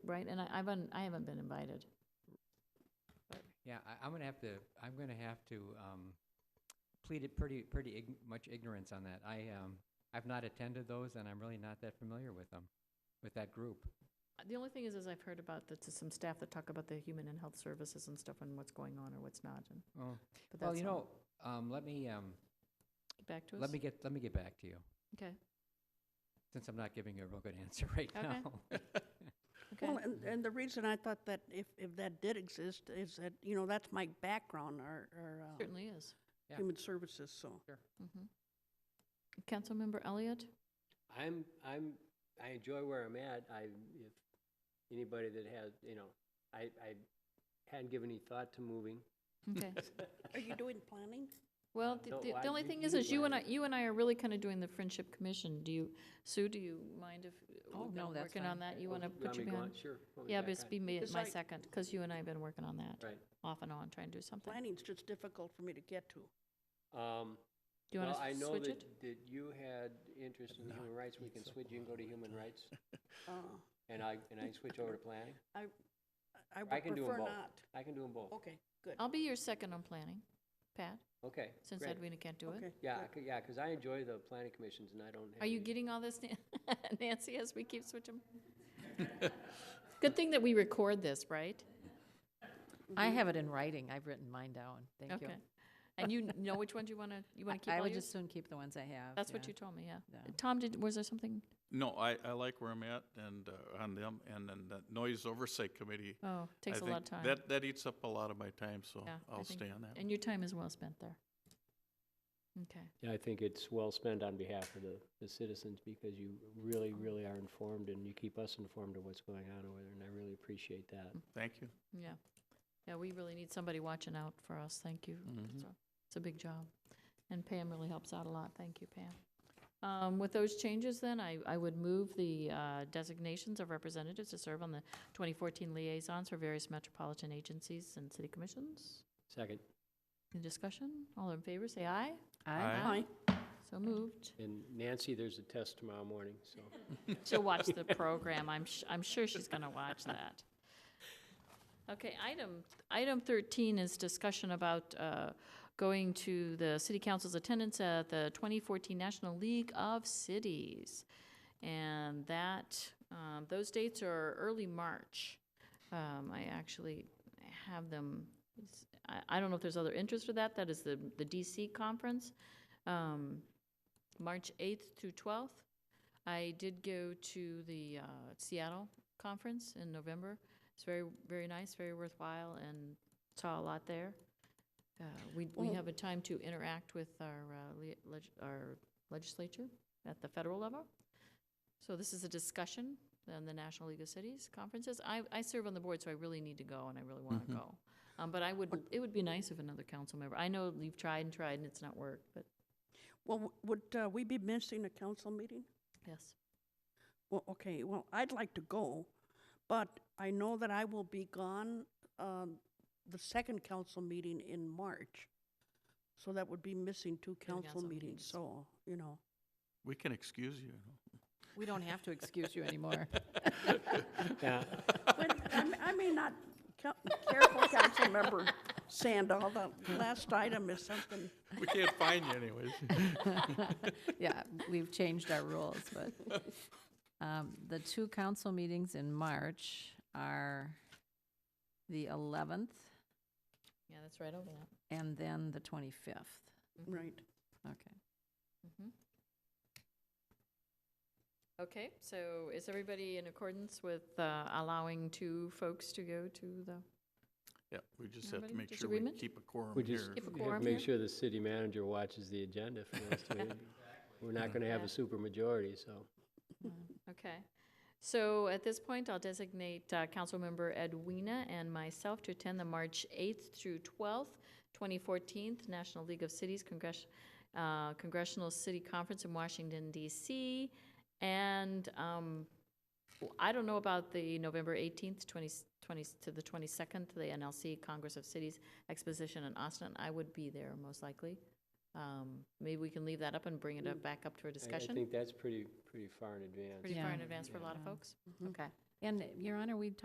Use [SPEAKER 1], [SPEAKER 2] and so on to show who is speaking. [SPEAKER 1] right? And I, I've, un- I haven't been invited.
[SPEAKER 2] Yeah, I, I'm gonna have to, I'm gonna have to, um, plead it pretty, pretty ig- much ignorance on that. I, um, I've not attended those and I'm really not that familiar with them, with that group.
[SPEAKER 1] Uh, The only thing is, is I've heard about the, to some staff that talk about the human and health services and stuff and what's going on or what's not, and,
[SPEAKER 2] Oh,
[SPEAKER 1] but that's
[SPEAKER 2] well, you
[SPEAKER 1] all.
[SPEAKER 2] know, um, let me, um,
[SPEAKER 1] Get Back to us?
[SPEAKER 2] let me get, let me get back to you,
[SPEAKER 1] Okay,
[SPEAKER 2] since I'm not giving you a real good answer right
[SPEAKER 1] Okay.
[SPEAKER 2] now.
[SPEAKER 1] okay.
[SPEAKER 3] Well, and, and the reason I thought that if, if that did exist is that, you know, that's my background, our, our, uh,
[SPEAKER 1] Certainly is.
[SPEAKER 2] Yeah.
[SPEAKER 3] human services, so.
[SPEAKER 1] Mhm. Councilmember Elliott?
[SPEAKER 4] I'm, I'm, I enjoy where I'm at. I, if anybody that has, you know, I, I hadn't given any thought to moving.
[SPEAKER 1] Okay.
[SPEAKER 3] Are you doing planning?
[SPEAKER 1] Well, the,
[SPEAKER 4] No,
[SPEAKER 1] the-
[SPEAKER 4] I-
[SPEAKER 1] the only
[SPEAKER 4] you-
[SPEAKER 1] thing
[SPEAKER 4] you
[SPEAKER 1] is, is you and I,
[SPEAKER 4] decide.
[SPEAKER 1] you and I are really kind of doing the Friendship Commission. Do you, Sue, do you mind if
[SPEAKER 5] Oh,
[SPEAKER 1] we've
[SPEAKER 5] no,
[SPEAKER 1] been
[SPEAKER 5] that's
[SPEAKER 1] working
[SPEAKER 5] fine.
[SPEAKER 1] on that? You
[SPEAKER 4] Oh,
[SPEAKER 1] want to
[SPEAKER 4] want
[SPEAKER 1] put
[SPEAKER 4] me
[SPEAKER 1] your
[SPEAKER 4] to go
[SPEAKER 1] hand?
[SPEAKER 4] on? Sure. put me
[SPEAKER 1] Yeah,
[SPEAKER 4] back
[SPEAKER 1] but it's
[SPEAKER 4] on.
[SPEAKER 1] be me,
[SPEAKER 3] It's
[SPEAKER 1] my
[SPEAKER 3] like-
[SPEAKER 1] second, because you and I have been working on that
[SPEAKER 4] Right.
[SPEAKER 1] off and on, trying to do something. Do
[SPEAKER 3] Planning's just difficult for me to get to.
[SPEAKER 4] Um,
[SPEAKER 1] you
[SPEAKER 4] well,
[SPEAKER 1] want
[SPEAKER 4] I
[SPEAKER 1] to
[SPEAKER 4] know
[SPEAKER 1] switch it?
[SPEAKER 4] that, that you had interest in human rights. We can switch, you can go to human rights.
[SPEAKER 3] Uh,
[SPEAKER 4] And I, and I can switch over to planning.
[SPEAKER 3] I
[SPEAKER 4] I
[SPEAKER 3] would
[SPEAKER 4] can do them
[SPEAKER 3] prefer
[SPEAKER 4] both.
[SPEAKER 3] not.
[SPEAKER 4] I can do them both.
[SPEAKER 3] Okay, good.
[SPEAKER 1] I'll be your second on planning, Pat,
[SPEAKER 4] Okay,
[SPEAKER 1] Oh. since
[SPEAKER 4] great.
[SPEAKER 1] Edwina can't do it.
[SPEAKER 3] Okay,
[SPEAKER 4] Yeah,
[SPEAKER 3] good.
[SPEAKER 4] I c- yeah, because I enjoy the planning commissions and I don't have.
[SPEAKER 1] Are you
[SPEAKER 4] any-
[SPEAKER 1] getting all this, Nan- Nancy, as we keep switching? Good thing that we record this, right?
[SPEAKER 5] I have it in writing. I've written mine down. Thank you.
[SPEAKER 1] Mm-hmm. Okay. And you know which ones you want to, you want to keep
[SPEAKER 5] I- I
[SPEAKER 1] all
[SPEAKER 5] would
[SPEAKER 1] yours?
[SPEAKER 5] just soon keep the ones I have.
[SPEAKER 1] That's what
[SPEAKER 5] yeah.
[SPEAKER 1] you told me, yeah.
[SPEAKER 5] Yeah.
[SPEAKER 1] Tom, did, was there something?
[SPEAKER 6] No, I, I like where I'm at and uh, on them, and then the noise oversight committee.
[SPEAKER 1] Oh,
[SPEAKER 6] I
[SPEAKER 1] takes a
[SPEAKER 6] think
[SPEAKER 1] lot of time.
[SPEAKER 6] That, that eats up a lot of my time, so
[SPEAKER 1] Yeah, I
[SPEAKER 6] I'll
[SPEAKER 1] think-
[SPEAKER 6] stay on that.
[SPEAKER 1] And your time is well spent there. Okay.
[SPEAKER 4] Yeah, I think it's well spent on behalf of the, the citizens because you really, really are informed and you keep us informed of what's going on over there, and I really appreciate that.
[SPEAKER 6] Thank you.
[SPEAKER 1] Yeah. Yeah, we really need somebody watching out for us. Thank you. It's a- It's a big job. And Pam really helps out a lot. Thank you, Pam. Um, With those changes then, I, I would move the uh, designations of representatives to serve on the 2014 liaisons for various metropolitan agencies and city commissions.
[SPEAKER 4] Second,
[SPEAKER 1] Any discussion? All in favor, say aye.
[SPEAKER 5] I-
[SPEAKER 6] Aye.
[SPEAKER 3] Hi,
[SPEAKER 1] So moved.
[SPEAKER 4] and Nancy, there's a test tomorrow morning, so.
[SPEAKER 1] She'll watch the program. I'm, sh- I'm sure she's going to watch that. Okay, item, item 13 is discussion about uh, going to the city council's attendance at the 2014 National League of Cities. And that, um, those dates are early March. Um, I actually have them, it's- I, I don't know if there's other interest for that. That is the, the DC conference, um, March 8th through 12th. I did go to the uh, Seattle conference in November. It's very, very nice, very worthwhile, and saw a lot there. Uh, we, we
[SPEAKER 3] Well-
[SPEAKER 1] have a time to interact with our, uh, le- leg- our legislature at the federal level. So this is a discussion on the National League of Cities conferences. I, I serve on the board, so I really need to go, and I really want to go. Um, but I would, it would be nice if another council member, I know you've tried and tried and it's not worked, but
[SPEAKER 3] well, w- would uh, we be missing a council meeting?
[SPEAKER 1] yes.
[SPEAKER 3] Well, okay, well, I'd like to go, but I know that I will be gone, um, the second council meeting in March. So that would be missing two council
[SPEAKER 1] council
[SPEAKER 3] meetings,
[SPEAKER 1] meetings.
[SPEAKER 3] so, you know.
[SPEAKER 6] We can excuse you.
[SPEAKER 5] We don't have to excuse you anymore.
[SPEAKER 4] Yeah,
[SPEAKER 3] But I m- I may not, ca- careful, council member Sandall, the last item is something,
[SPEAKER 6] We can't find you anyways.
[SPEAKER 5] Yeah, we've changed our rules, but. um, The two council meetings in March are the 11th
[SPEAKER 1] Yeah, that's right over that.
[SPEAKER 5] and then the 25th.
[SPEAKER 3] right.
[SPEAKER 5] Okay.
[SPEAKER 1] Mm-hmm. Okay, so is everybody in accordance with uh, allowing two folks to go to the,
[SPEAKER 6] Yeah, we just have
[SPEAKER 1] Anybody
[SPEAKER 6] to make sure we
[SPEAKER 1] disagreement?
[SPEAKER 6] keep a quorum
[SPEAKER 4] we just
[SPEAKER 6] here.
[SPEAKER 1] Keep a
[SPEAKER 4] have to
[SPEAKER 1] quorum
[SPEAKER 4] make
[SPEAKER 1] here?
[SPEAKER 4] sure the city manager watches the agenda for us to, we're not going to have
[SPEAKER 1] Yeah.
[SPEAKER 4] a super majority, so.
[SPEAKER 1] okay. So at this point, I'll designate uh, Councilmember Edwina and myself to attend the March 8th through 12th, 2014 National League of Cities Congress- uh, Congressional City Conference in Washington DC. And um, w- I don't know about the November 18th, 20, 20 to the 22nd, the NLC Congress of Cities Exposition in Austin. I would be there most likely. Um, Maybe we can leave that up and bring it up, back up to a
[SPEAKER 4] Mm. I- I
[SPEAKER 1] discussion
[SPEAKER 4] think that's pretty, pretty far in advance.
[SPEAKER 1] pretty far in
[SPEAKER 5] Yeah.
[SPEAKER 1] advance for a lot of
[SPEAKER 5] Yeah.
[SPEAKER 1] folks? Okay.
[SPEAKER 5] And Your Honor, we